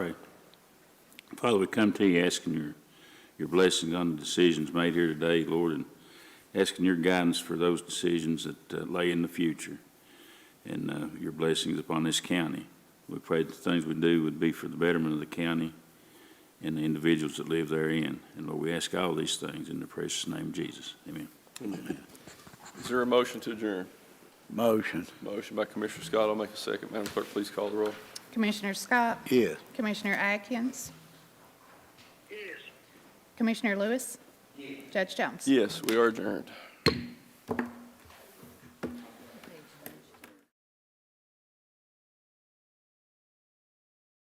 Father, we come to you asking your, your blessings on the decisions made here today, Lord, and asking your guidance for those decisions that uh, lay in the future and uh, your blessings upon this county. We pray that the things we do would be for the betterment of the county and the individuals that live therein. And Lord, we ask all these things in the precious name of Jesus. Amen. Is there a motion to adjourn? Motion. Motion by Commissioner Scott, I'll make a second. Madam Clerk, please call the roll. Commissioner Scott? Yes. Commissioner Atkins? Yes. Commissioner Lewis? Judge Jones? Yes, we are adjourned.